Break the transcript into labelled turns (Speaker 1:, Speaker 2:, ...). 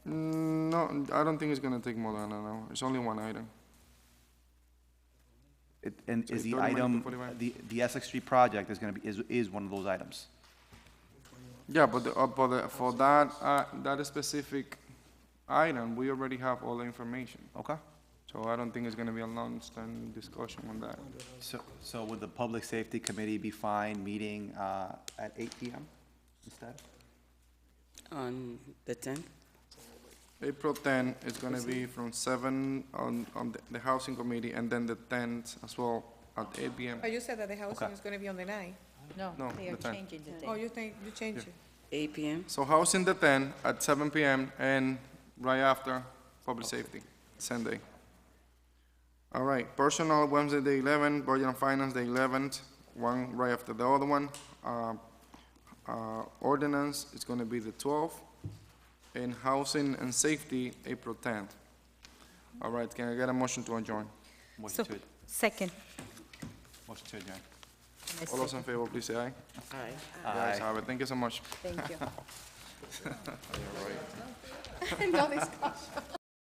Speaker 1: Mm, No, I don't think it's gonna take more than an hour. It's only one item.
Speaker 2: It- And
Speaker 1: So
Speaker 2: is the
Speaker 1: 30 minute to
Speaker 2: item,
Speaker 1: 45.
Speaker 2: the, the Essex Street project is gonna be, is, is one of those items.
Speaker 1: Yeah, but the, uh, but the, for that, uh, that specific item, we already have all the information.
Speaker 2: Okay?
Speaker 1: So I don't think it's gonna be a long-standing discussion on that.
Speaker 2: So, so would the Public Safety Committee be fine meeting, uh, at eight PM instead?
Speaker 3: on the 10th?
Speaker 1: April 10 is going to be from 7 on, on the- the Housing Committee, and then the 10th as well at 8 PM.
Speaker 4: Oh, you said that the housing
Speaker 2: Okay.
Speaker 4: is gonna be on the nine.
Speaker 1: No,
Speaker 5: No, they are
Speaker 1: the tenth.
Speaker 5: changing the
Speaker 4: Oh,
Speaker 5: date.
Speaker 4: you think, you changed it?
Speaker 3: 8 PM?
Speaker 1: So Housing the 10 at 7 PM, and right after, Public Safety, Sunday. All right, Personal Wednesday the 11, Budget and Finance the 11th, one right after the other one. Uh, uh, Ordinance is going to be the 12th, and Housing and Safety, April 10th. All right, can I get a motion to adjourn?
Speaker 2: Motion
Speaker 5: So,
Speaker 2: to,
Speaker 5: second.
Speaker 2: motion to adjourn.
Speaker 5: I
Speaker 1: All those in
Speaker 5: second.
Speaker 1: favor, please say aye.
Speaker 3: Aye.
Speaker 1: The ayes have it. Thank you so much.
Speaker 5: Thank you.
Speaker 4: No discussion.